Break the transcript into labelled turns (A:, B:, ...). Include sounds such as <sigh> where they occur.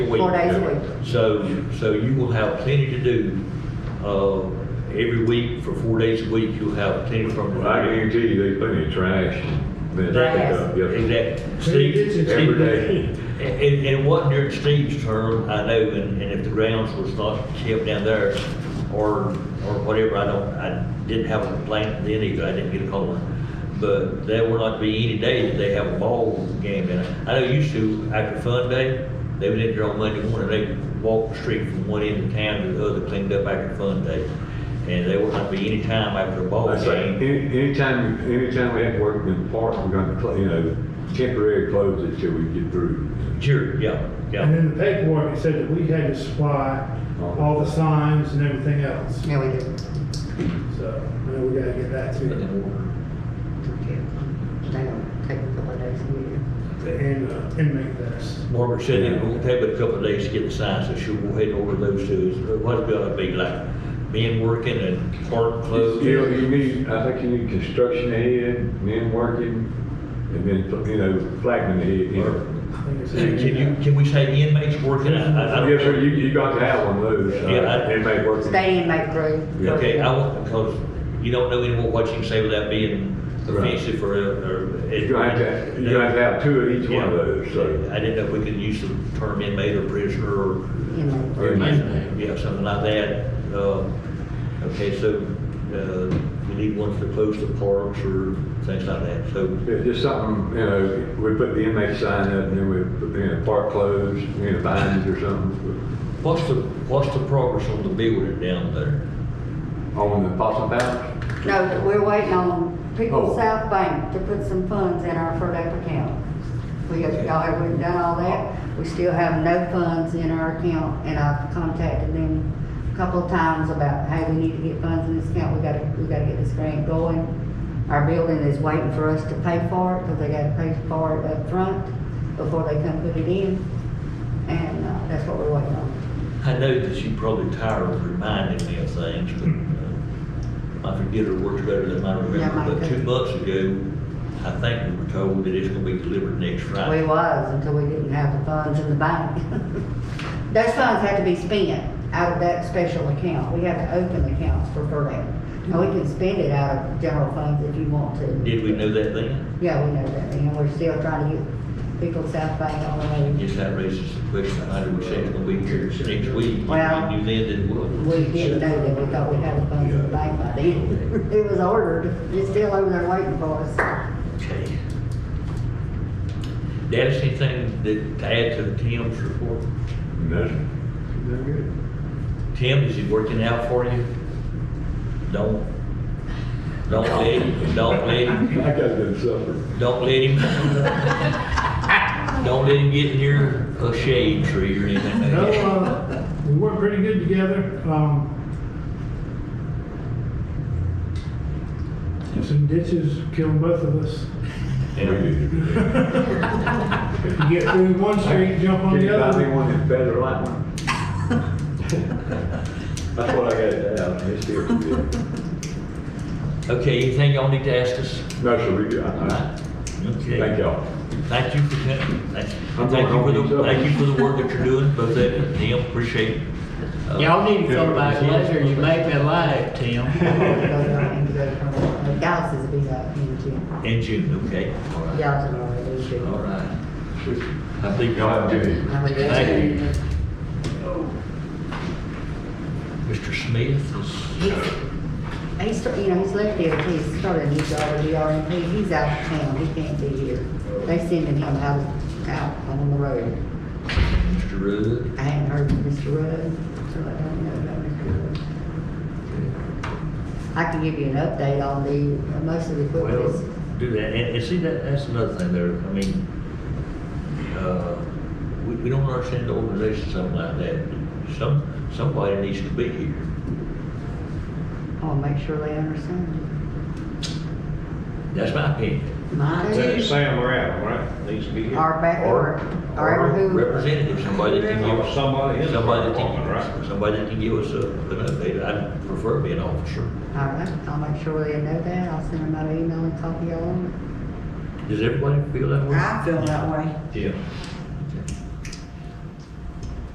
A: week.
B: Four days a week.
A: So, so you will have plenty to do, uh, every week for four days a week, you'll have plenty from the.
C: Well, I guarantee you, there's plenty of trash. and things to pick up. Yes, sir.
A: Exactly.
D: Plenty
A: Steve-
D: of ditches.
A: Steve-
C: Every day.
A: And, and- and what during Steve's term, I know, and, and if the grounds was not kept down there or, or whatever, I don't, I didn't have a complaint then either, I didn't get a call. But there will not be any day that they have a ball game down there. I know used to, after Fun Day, they would enter on Monday morning, they walked the street from one end of town to the other, cleaned up after Fun Day. And there will not be any time after a ball
C: That's right.
A: game.
C: Any- Anytime, anytime we have to work in the park, we're gonna, cl- you know, temporary close it till we get through.
A: Sure, yeah, yeah.
D: And in the paperwork, it said that we had to supply
C: Uh-huh.
D: all the signs and everything else.
B: Yeah, we do.
D: So, I know we gotta get that
A: Put
D: too.
A: in order.
B: They don't take a couple of days a year.
D: And uh, inmate this.
A: Margaret said it won't take but a couple of days to get the signs, so she'll go ahead and order those two. What's it gonna be like? Men working and park closed?
C: You know, you need, I think you need construction ahead, men working, and then, you know, flagman ahead. you know.
D: I think it's-
A: Can you, can we say inmates working? I- I don't-
C: Yes, sir, you, you got to have one of those. uh,
A: Yeah, I-
C: Inmate working.
B: Stay in my group.
C: Yeah.
A: Okay, I want, because you don't know anyone what you can say without being offensive or, or.
C: You're gonna have to, you're gonna have to have two of each one of those, so.
A: I didn't know if we could use the term inmate or prisoner or.
B: You know.
A: or
C: Inmate.
A: inmate, Yeah, something like that. Uh, Okay, so, uh, we need one for close to parks or things like that, so.
C: It's just something, you know, we put the inmate sign up and then we, put, you know, park closed, you know, vines or something
A: What's the, what's the progress on the building down there?
C: on the possum pouch.
B: No, we're waiting on People's
C: Oh.
B: South Bank to put some funds in our FERDAP account. We have, y'all have not done all that. We still have no funds in our account, and I've contacted them a couple of times about, hey, we need to get funds in this account, we gotta, we gotta get this grant going. Our building is waiting for us to pay for it, because they gotta pay for it up front before they come put it in, and, uh, that's what we're waiting on.
A: I know that you probably tired of reminding me of things, but uh, my forgetter works better than my
B: Yeah,
A: remember.
B: mine
A: But
B: too.
A: two months ago, I think we were told that it's gonna be delivered next
B: We
A: Friday.
B: was until we didn't have the funds in the bank. <laughs> Those funds had to be spent out of that special account. We have to open accounts for FERDAP. Now, we can spend it out of general funds if you want to.
A: Did we know that then?
B: Yeah, we know that, and we're still trying to get people South Bank on the way.
A: Yes, that raises the question, how do we say it's gonna be here next week?
B: Well-
A: You then did what?
B: We didn't know that, we thought we had the funds in the bank by then. <laughs> It was ordered, it's still over there waiting for
A: <laughs>
B: us.
A: Okay. Dennis, anything that to add to Tim's report?
C: No, sir. They're good.
A: Tim, is he working out for you? Don't, don't let him, don't let him,
C: I got good supper.
A: don't let him, <laughs> don't let him get near a shade tree or anything
D: No,
A: like that.
D: uh, we work pretty good together. Um, there's some ditches killing both of us. You get through one street, jump on
C: Can you
D: the
C: buy
D: other.
C: me one that's better like mine? That's what I got to have, it's here for you.
A: Okay, anything y'all need to ask us?
C: No, sir, we do, I- I- thank
A: Okay.
C: y'all.
A: Thank you for, thank
C: I'm
A: thank you for
C: going
A: the,
C: home.
A: thank you for the work that you're doing, both of you, and Tim, appreciate it. Uh,
E: Y'all need to come back later, you make me laugh, Tim.
B: Dallas is a big, uh, community.
A: In June, okay? All right.
B: Dallas is already a big.
A: All right. I think.
C: Y'all have a good evening.
B: I'm a good-
A: Thank you. Mr. Smith is.
B: He's, start- you know, he's left DOT, he's started a new job at DRMP, he's out of town, he can't be here. They sending him out, out on the road.
A: Mr. Rudd.
B: I hadn't heard from Mr. Rudd, so I don't know about Mr. Rudd. I can give you an update on the, uh, most of the equipment
A: Well,
B: is,
A: do that, and, and see, that, that's another thing there, I mean, uh, we, we don't understand the organization, something like that. Some, somebody needs to be here.
B: I'll make sure they understand.
A: That's my opinion.
B: Mine is,
F: Sam Morrell, right, needs to be here.
B: our back, or, or who,
A: Representative, somebody that can give us,
F: Somebody in the
A: somebody that
F: department,
A: can,
F: right?
A: somebody that can give us a, an update. I prefer being an officer.
B: all right, I'll make sure they know that, I'll send them out an email and copy all of them.
A: Does everybody feel that way?
G: I feel that way.
F: Yeah.